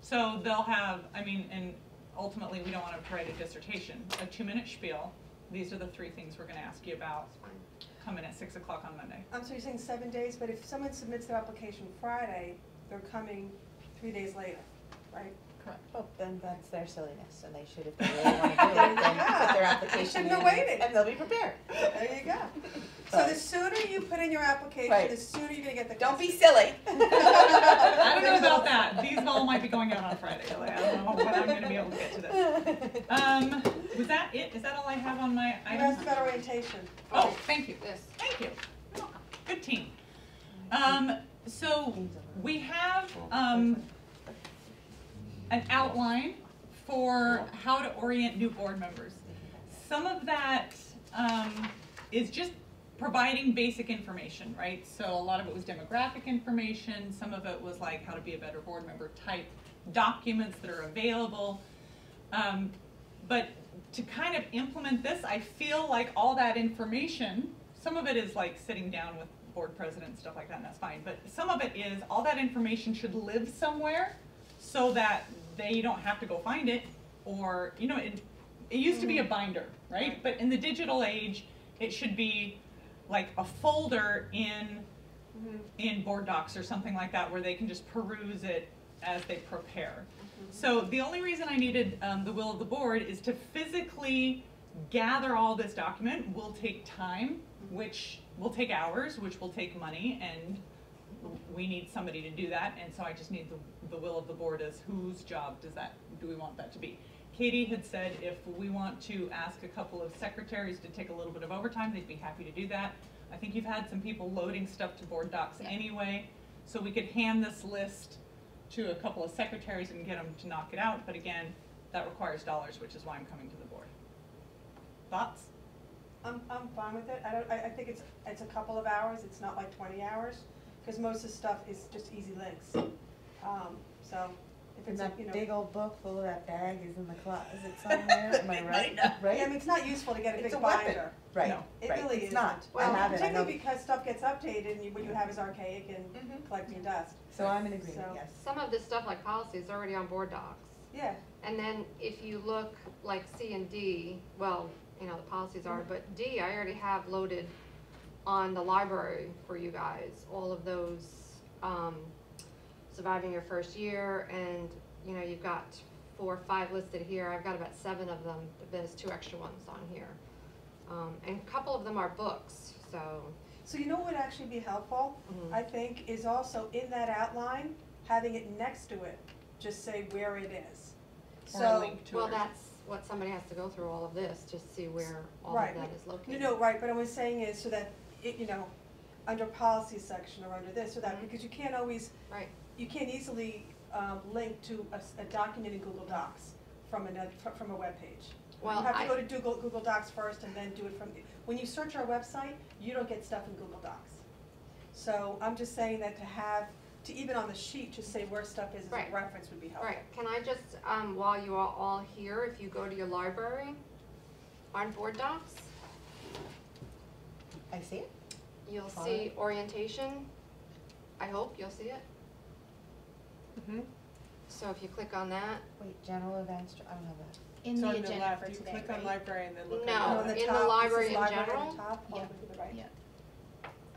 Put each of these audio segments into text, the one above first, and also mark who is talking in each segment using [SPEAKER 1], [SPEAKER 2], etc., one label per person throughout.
[SPEAKER 1] So they'll have, I mean, and ultimately, we don't wanna write a dissertation, a two-minute spiel, these are the three things we're gonna ask you about, come in at six o'clock on Monday.
[SPEAKER 2] Um, so you're saying seven days, but if someone submits their application Friday, they're coming three days later, right?
[SPEAKER 1] Correct.
[SPEAKER 3] Well, Oh, then that's their silliness, and they should, if they really wanna do it, then put their
[SPEAKER 2] Yeah.
[SPEAKER 3] application in,
[SPEAKER 2] Shouldn't have waited.
[SPEAKER 3] and they'll be prepared.
[SPEAKER 2] There you go. So the sooner you put in your application,
[SPEAKER 3] Right.
[SPEAKER 2] the sooner you're gonna get the.
[SPEAKER 3] Don't be
[SPEAKER 2] customer.
[SPEAKER 3] silly.
[SPEAKER 1] I don't know about that, these all might be going out on Friday, like, I don't know when I'm gonna be able to get to this. Um, was that it, is that all I have on my
[SPEAKER 2] You
[SPEAKER 1] items?
[SPEAKER 2] asked about orientation.
[SPEAKER 1] Oh, thank you.
[SPEAKER 4] Yes.
[SPEAKER 1] Thank you. You're welcome. Good team. Um, so we have, um, an outline for how to orient new board members. Some of that, um, is just providing basic information, right? So a lot of it was demographic information, some of it was like how to be a better board member type documents that are available. Um, but to kind of implement this, I feel like all that information, some of it is like sitting down with board president and stuff like that, and that's fine. But some of it is all that information should live somewhere so that they don't have to go find it or, you know, it, it used to be a binder, right? But in the digital age, it should be like a folder in in board docs or something like that where they can just peruse it as they prepare. So the only reason I needed um, the will of the board is to physically gather all this document will take time, which will take hours, which will take money, and we need somebody to do that, and so I just need the, the will of the board as whose job does that, do we want that to be? Katie had said if we want to ask a couple of secretaries to take a little bit of overtime, they'd be happy to do that. I think you've had some people loading stuff to board docs
[SPEAKER 4] Yeah.
[SPEAKER 1] anyway, so we could hand this list to a couple of secretaries and get them to knock it out, but again, that requires dollars, which is why I'm coming to the board. Thoughts?
[SPEAKER 2] I'm, I'm fine with it. I don't, I, I think it's, it's a couple of hours. It's not like twenty hours, cause most of the stuff is just easy links. Um, so if
[SPEAKER 5] And
[SPEAKER 2] it's, a-
[SPEAKER 5] that
[SPEAKER 2] you know.
[SPEAKER 5] big old book full of that bag is in the closet somewhere, am I right?
[SPEAKER 2] Yeah, I
[SPEAKER 5] Right?
[SPEAKER 2] mean, it's not useful to get a big
[SPEAKER 3] It's a weapon.
[SPEAKER 2] binder.
[SPEAKER 5] Right,
[SPEAKER 1] No.
[SPEAKER 2] It
[SPEAKER 5] right.
[SPEAKER 2] really
[SPEAKER 5] It's
[SPEAKER 2] isn't.
[SPEAKER 5] not. I
[SPEAKER 2] Well,
[SPEAKER 5] have it, I know. Mm-hmm.
[SPEAKER 2] particularly because stuff gets updated and you, what you have is archaic and
[SPEAKER 3] Mhm.
[SPEAKER 2] collecting dust.
[SPEAKER 5] So I'm in agreement,
[SPEAKER 2] So-
[SPEAKER 5] yes.
[SPEAKER 4] Some of this stuff like policy is already on board docs.
[SPEAKER 2] Yeah,
[SPEAKER 4] And then if you look like C and D, well, you know, the policies are, but D, I already have loaded on the library for you guys, all of those, um, surviving your first year and, you know, you've got four, or five listed here. I've got about seven of them, but there's two extra ones on here. Um, and a couple of them are books, so,
[SPEAKER 2] so you know what would actually be helpful,
[SPEAKER 4] Mhm.
[SPEAKER 2] I think, is also in that outline, having it next to it, just say where it is.
[SPEAKER 1] Or a
[SPEAKER 2] So,
[SPEAKER 1] link to it.
[SPEAKER 4] well,
[SPEAKER 1] or-
[SPEAKER 4] that's what somebody has to go through all of this to see where all
[SPEAKER 2] Right.
[SPEAKER 4] of that is located.
[SPEAKER 2] you know, right, but what I'm saying is so that, it, you know, under policy section or under this or that,
[SPEAKER 1] Mm-hmm.
[SPEAKER 2] because you can't always,
[SPEAKER 4] Right.
[SPEAKER 2] you can't easily, um, link to a, s- a document in Google Docs from another, fr- from a webpage.
[SPEAKER 4] Well,
[SPEAKER 2] You have to
[SPEAKER 4] I-
[SPEAKER 2] go to Google, Google Docs first and then do it from, when you search our website, you don't get stuff in Google Docs. So I'm just saying that to have, to even on the sheet, just say where stuff is as
[SPEAKER 4] Right.
[SPEAKER 2] a reference would be helpful.
[SPEAKER 4] Alright, can I just, um, while you are all here, if you go to your library, on Board Docs,
[SPEAKER 3] I see it.
[SPEAKER 4] you'll
[SPEAKER 3] Follow
[SPEAKER 4] see orientation. I hope you'll see it.
[SPEAKER 3] Mm-hmm.
[SPEAKER 4] So if you click on that,
[SPEAKER 3] Wait, general events, I don't have that.
[SPEAKER 6] in
[SPEAKER 7] So
[SPEAKER 6] the
[SPEAKER 7] on the
[SPEAKER 6] agenda
[SPEAKER 7] left,
[SPEAKER 6] for
[SPEAKER 7] you
[SPEAKER 6] today,
[SPEAKER 7] click on
[SPEAKER 6] right? Oh,
[SPEAKER 7] library and then look at.
[SPEAKER 4] No,
[SPEAKER 2] And on
[SPEAKER 7] the-
[SPEAKER 2] the
[SPEAKER 4] in the
[SPEAKER 2] top, this is
[SPEAKER 4] library in
[SPEAKER 2] library on
[SPEAKER 4] general?
[SPEAKER 2] the top, all the
[SPEAKER 6] Yeah.
[SPEAKER 2] way to the right.
[SPEAKER 6] Yeah.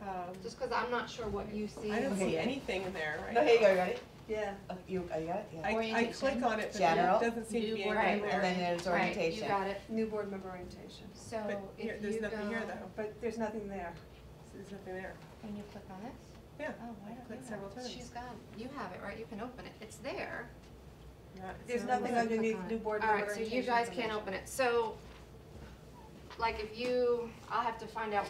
[SPEAKER 7] um,
[SPEAKER 4] just cause I'm not sure what you see.
[SPEAKER 7] I don't
[SPEAKER 3] Okay.
[SPEAKER 7] see anything in there right now.
[SPEAKER 3] No, here you go, you got it?
[SPEAKER 2] Yeah.
[SPEAKER 3] Uh, You, oh, you got it, yeah.
[SPEAKER 7] I, I
[SPEAKER 6] Orientation.
[SPEAKER 7] click on it, but
[SPEAKER 3] General.
[SPEAKER 7] it doesn't seem to
[SPEAKER 6] New
[SPEAKER 7] be anything
[SPEAKER 6] board
[SPEAKER 7] there.
[SPEAKER 4] member.
[SPEAKER 3] And then there's
[SPEAKER 4] Right, you
[SPEAKER 3] orientation.
[SPEAKER 4] got it.
[SPEAKER 2] New board member orientation,
[SPEAKER 6] So if
[SPEAKER 7] But
[SPEAKER 6] you
[SPEAKER 7] here, there's nothing here
[SPEAKER 6] go-
[SPEAKER 7] though,
[SPEAKER 2] but there's nothing there. Oh,
[SPEAKER 7] there's nothing there,
[SPEAKER 6] When you click on this?
[SPEAKER 7] yeah,
[SPEAKER 6] Oh, why
[SPEAKER 7] I
[SPEAKER 6] don't
[SPEAKER 7] clicked
[SPEAKER 6] you
[SPEAKER 7] several
[SPEAKER 6] have it?
[SPEAKER 7] times.
[SPEAKER 4] She's got, you have it, right? You can open it. It's there.
[SPEAKER 7] Not- it's
[SPEAKER 2] There's
[SPEAKER 7] not
[SPEAKER 2] nothing
[SPEAKER 7] listed.
[SPEAKER 4] on- click
[SPEAKER 2] underneath
[SPEAKER 4] it.
[SPEAKER 2] new board member
[SPEAKER 4] Alright, so
[SPEAKER 2] orientation.
[SPEAKER 4] you guys can't
[SPEAKER 2] information.
[SPEAKER 4] open it. So, like if you, I'll have to find out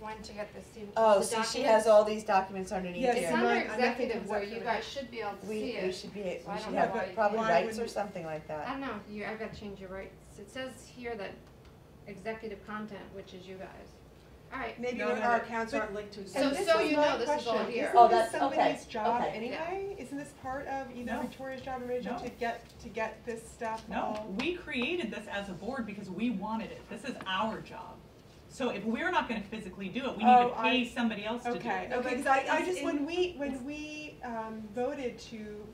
[SPEAKER 4] when to get this, the
[SPEAKER 3] Oh, so she has
[SPEAKER 4] documents.
[SPEAKER 3] all these documents underneath
[SPEAKER 7] Yes,
[SPEAKER 3] here.
[SPEAKER 4] It's
[SPEAKER 7] Yeah.
[SPEAKER 4] under
[SPEAKER 7] Mine- I don't think
[SPEAKER 4] executive
[SPEAKER 7] it's
[SPEAKER 4] where
[SPEAKER 7] up
[SPEAKER 4] you
[SPEAKER 7] for
[SPEAKER 4] guys should be able to see
[SPEAKER 3] We, we
[SPEAKER 4] it.
[SPEAKER 3] should be,
[SPEAKER 4] So I
[SPEAKER 3] we
[SPEAKER 4] don't
[SPEAKER 3] should
[SPEAKER 4] know why
[SPEAKER 3] have
[SPEAKER 4] you
[SPEAKER 3] probably
[SPEAKER 7] can't.
[SPEAKER 3] rights or
[SPEAKER 7] Why
[SPEAKER 3] something like
[SPEAKER 4] I
[SPEAKER 3] that.
[SPEAKER 4] don't know, you, I've gotta change your rights. It says here that executive content, which is you guys. Alright,
[SPEAKER 2] Maybe
[SPEAKER 7] No,
[SPEAKER 2] our
[SPEAKER 7] no,
[SPEAKER 2] our
[SPEAKER 7] no.
[SPEAKER 2] accounts
[SPEAKER 7] But-
[SPEAKER 2] aren't linked to. each
[SPEAKER 4] So-
[SPEAKER 2] other.
[SPEAKER 7] And this
[SPEAKER 4] so
[SPEAKER 7] is
[SPEAKER 4] you
[SPEAKER 7] my
[SPEAKER 4] know this is all
[SPEAKER 7] question.
[SPEAKER 4] here.
[SPEAKER 7] Isn't
[SPEAKER 3] Oh,
[SPEAKER 7] this
[SPEAKER 3] that's- okay,
[SPEAKER 7] somebody's job
[SPEAKER 3] okay.
[SPEAKER 7] anyway? Isn't this part of either
[SPEAKER 1] No.
[SPEAKER 7] Victoria's job or my job
[SPEAKER 1] No.
[SPEAKER 7] to get, to get this stuff all?
[SPEAKER 1] No, we created this as a board because we wanted it. This is our job. So if we're not gonna physically do it, we need to
[SPEAKER 7] Oh, I-
[SPEAKER 1] pay somebody else to do it.
[SPEAKER 7] Okay,
[SPEAKER 2] No,
[SPEAKER 7] okay,
[SPEAKER 2] but
[SPEAKER 7] cause I,
[SPEAKER 2] it's
[SPEAKER 7] I just,
[SPEAKER 2] in-
[SPEAKER 7] when we, when we, um, voted to